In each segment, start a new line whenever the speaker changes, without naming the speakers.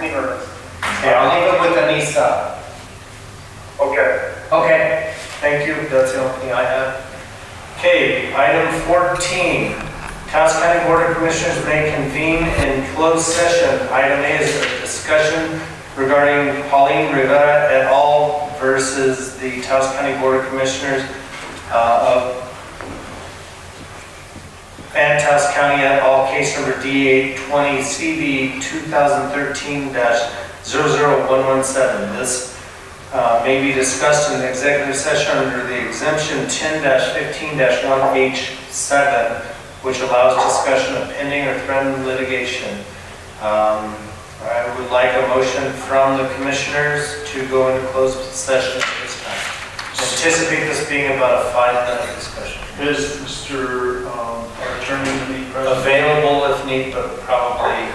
be reversed.
Okay, I'll leave it with Anissa.
Okay.
Okay, thank you, that's the only thing I have. Okay, item 14, Taos County Board of Commissioners may convene in closed session. Item A is a discussion regarding Pauline Rivera et al. versus the Taos County Board of Commissioners uh, of Van Taos County et al., case number D820CB 2013-00117. This uh, may be discussed in the executive session under the exemption ten fifteen one H seven, which allows discussion of pending or threatened litigation. Um, I would like a motion from the commissioners to go into closed session at this time. Anticipate this being about a five-minute discussion.
Is Mr. um, our attorney to be present?
Available if need, but probably,
And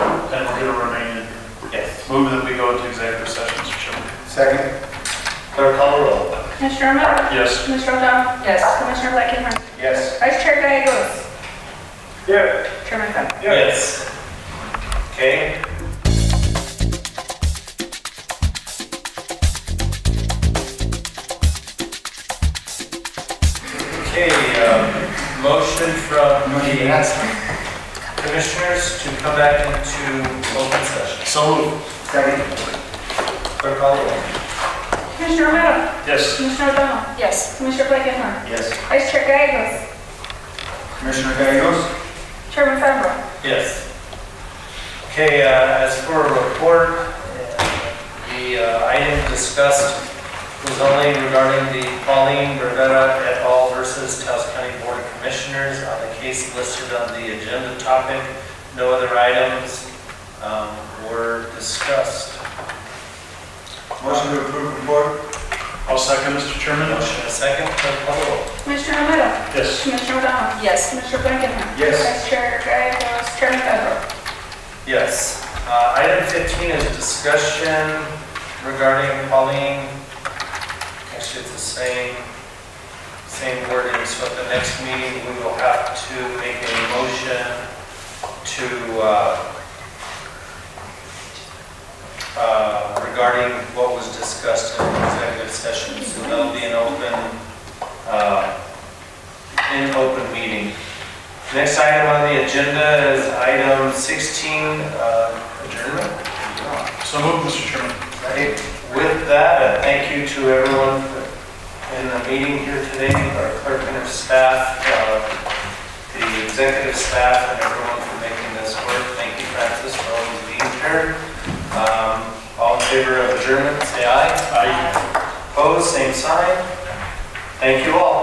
we're going to remain in.
yes.
Move that we go into executive session, Mr. Chairman.
Second?
Clerk, call the roll.
Commissioner Romero?
Yes.
Commissioner O'Donnell? Yes. Commissioner Blakenhart?
Yes.
Vice Chair Gagos?
Yeah.
Chairman Bender?
Yes. Okay. Okay, um, motion from the commissioners to come back into open session.
So
Second?
Clerk call the roll.
Commissioner Romero?
Yes.
Commissioner O'Donnell? Yes. Commissioner Blakenhart?
Yes.
Vice Chair Gagos?
Commissioner Gagos?
Chairman Bender?
Yes. Okay, uh, as for a report, uh, the uh, item discussed was only regarding the Pauline Rivera et al. versus Taos County Board of Commissioners on the case listed on the agenda topic. No other items um, were discussed.
Motion to approve report?
I'll second, Mr. Chairman.
Motion and a second, clerk call the roll.
Commissioner Romero?
Yes.
Commissioner O'Donnell? Yes. Commissioner Blakenhart?
Yes.
Vice Chair Gagos? Chairman Bender?
Yes. Uh, Item 15 is discussion regarding Pauline. Actually, it's the same, same wording, so at the next meeting, we will have to make a motion to, uh, uh, regarding what was discussed in the executive session, so that'll be an open, uh, an open meeting. Next item on the agenda is item 16, uh, adjournment.
So move, Mr. Chairman.
Right. With that, a thank you to everyone in the meeting here today, our clerk and her staff, uh, the executive staff, and everyone for making this work. Thank you, Francis, for always being here. Um, All in favor of adjournment, say aye. Aye. Opposed, same sign. Thank you all.